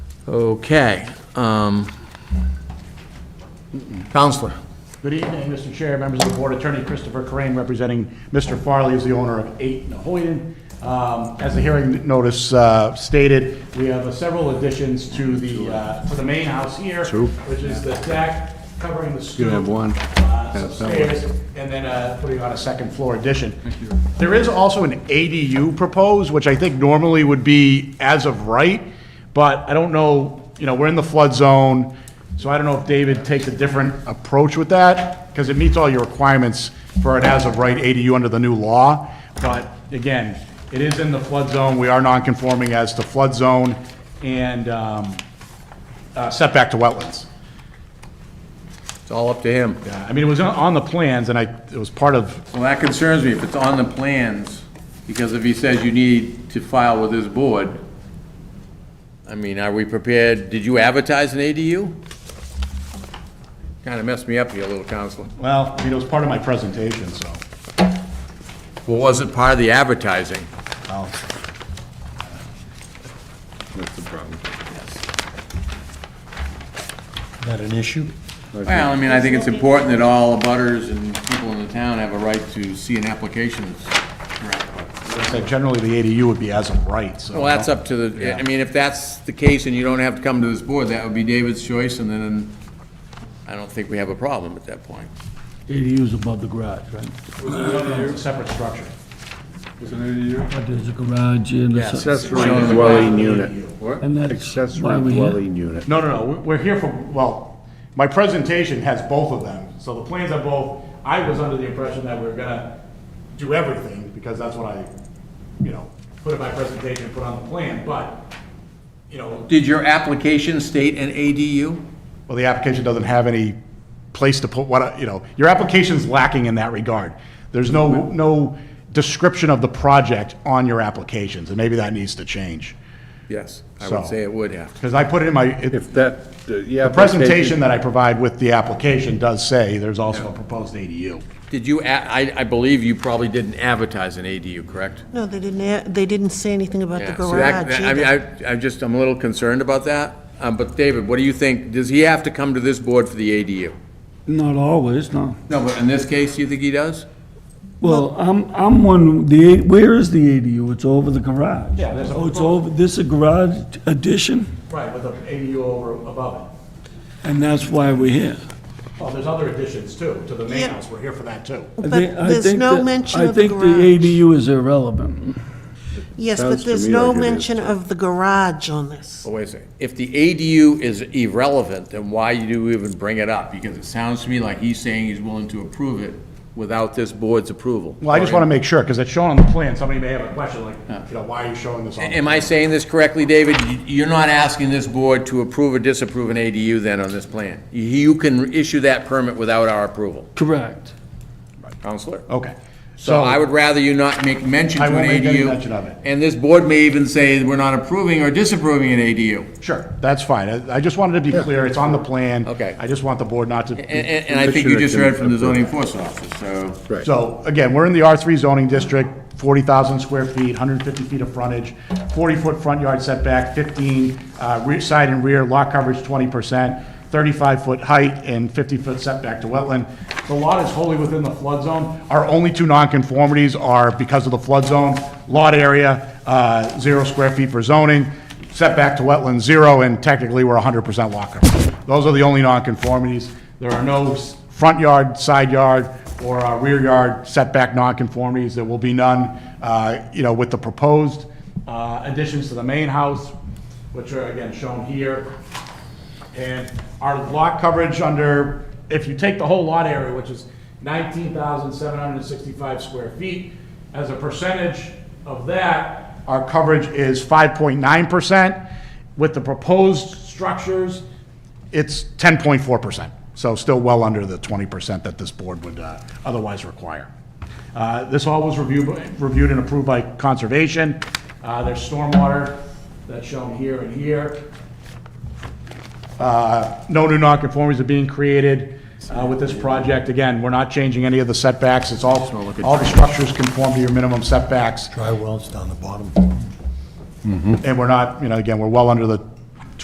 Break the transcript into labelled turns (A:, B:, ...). A: Okay. um, Counselor.
B: Good evening, Mr. Chair, members of the board. Attorney Christopher Crane representing Mr. Farley, who's the owner of 8 Nahoyden. Um, As the hearing notice uh, stated, we have uh, several additions to the, uh, to the main house here, which is the deck covering the stoop.
C: You have one.
B: uh, some
C: Have that one.
B: stairs, and then uh, putting on a second floor addition. There is also an ADU proposed, which I think normally would be as of right, but I don't know, you know, we're in the flood zone, so I don't know if David takes a different approach with that, because it meets all your requirements for an as-of-right ADU under the new law. But again, it is in the flood zone, we are non-conforming as to flood zone and um, uh, setback to wetlands.
A: It's all up to him.
B: Yeah, I mean, it was on- on the plans, and I, it was part of
A: Well, that concerns me if it's on the plans, because if he says you need to file with his board, I mean, are we prepared, did you advertise an ADU? Kind of messed me up here, little counselor.
B: Well, I mean, it was part of my presentation, so,
A: Well, was it part of the advertising?
B: well,
C: That's the problem.
D: Not an issue?
A: Well, I mean, I think it's important that all abutters and people in the town have a right to see an application.
B: as I said, generally, the ADU would be as of right, so.
A: Well, that's up to the, I mean, if that's the case and you don't have to come to this board, that would be David's choice, and then I don't think we have a problem at that point.
D: ADU's above the garage, right?
B: It's a Separate structure.
C: Is it an ADU?
D: But there's a garage and a...
E: Accessory dwelling unit.
A: What?
D: And that's why
E: Accessory
D: we have...
E: dwelling unit.
B: No, no, no, we- we're here for, well, my presentation has both of them, so the plans are both, I was under the impression that we were gonna do everything, because that's what I, you know, put in my presentation, put on the plan, but, you know,
A: Did your application state an ADU?
B: well, the application doesn't have any place to put what, I- you know, your application's lacking in that regard. There's no, no description of the project on your applications, and maybe that needs to change.
A: Yes, I
B: So-
A: would say it would have. to.
B: Because I put it in my, it-
E: If that, uh, yeah.
B: the presentation that I provide with the application does say there's also a proposed ADU.
A: Did you, a- I, I believe you probably didn't advertise an ADU, correct?
F: No, they didn't, a- they didn't say anything about the
A: Yeah, so that-
F: garage
A: that- I mean,
F: either.
A: I, I just, I'm a little concerned about that. Um, but David, what do you think? Does he have to come to this board for the ADU?
G: Not always, no.
A: No, but in this case, you think he does?
G: Well, I'm, I'm one, the, where is the ADU? It's over the garage.
B: Yeah, there's a-
G: Oh, it's over, this is a garage addition,
B: Right, with an ADU over, above it.
G: and that's why we're here.
B: Well, there's other additions too, to the main
F: Yeah.
B: house, we're here for that too.
G: I
F: But
G: think- I
F: there's
G: think
F: no
G: that-
F: mention of the
G: I think
F: garage.
G: the ADU is irrelevant.
F: Yes,
E: Sounds
F: but
E: to
F: there's
E: me
F: no
E: like it is.
F: mention of the garage on this.
A: Well, wait a second. If the ADU is irrelevant, then why do you even bring it up? Because it sounds to me like he's saying he's willing to approve it without this board's approval.
B: Well, I just want to make sure, because it's shown on the plan, somebody may have a question like, you know, why are you showing this on? the
A: Am I saying this correctly, David? You- You're not asking this board to approve or disapprove an ADU then on this plan? You can issue that permit without our approval,
G: Correct.
A: Counselor?
B: Okay.
A: So I would rather you not make mention to
B: I
A: an ADU.
B: won't make any mention of it.
A: And this board may even say we're not approving or disapproving an ADU.
B: Sure, that's fine. I I just wanted to be clear, it's on the plan.
A: Okay.
B: I just want the board not to.
A: And, and- and I think you just read from the zoning enforcement officer, so.
E: Right.
B: So again, we're in the R3 zoning district, 40,000 square feet, 150 feet of frontage, 40-foot front yard setback, 15 uh, rear, side and rear, lot coverage 20%, 35-foot height, and 50-foot setback to wetland. The lot is wholly within the flood zone. Our only two nonconformities are because of the flood zone, lot area, uh, zero square feet for zoning, setback to wetland, zero, and technically, we're 100% lot coverage. Those are the only nonconformities. There are no s- front yard, side yard, or uh, rear yard setback nonconformities. There will be none, uh, you know, with the proposed uh, additions to the main house, which are again shown here. And our lot coverage under, if you take the whole lot area, which is 19,765 square feet, as a percentage of that, our coverage is 5.9%. With the proposed structures, it's 10.4%. So still well under the 20% that this board would uh, otherwise require. Uh, This all was reviewed, reviewed and approved by Conservation. Uh, There's stormwater that's shown here and here no new nonconformities are being created uh, with this project. Again, we're not changing any of the setbacks, it's all, all the structures conform to your minimum setbacks,
D: Dry wells down the bottom.
B: and we're not, you know, again, we're well under the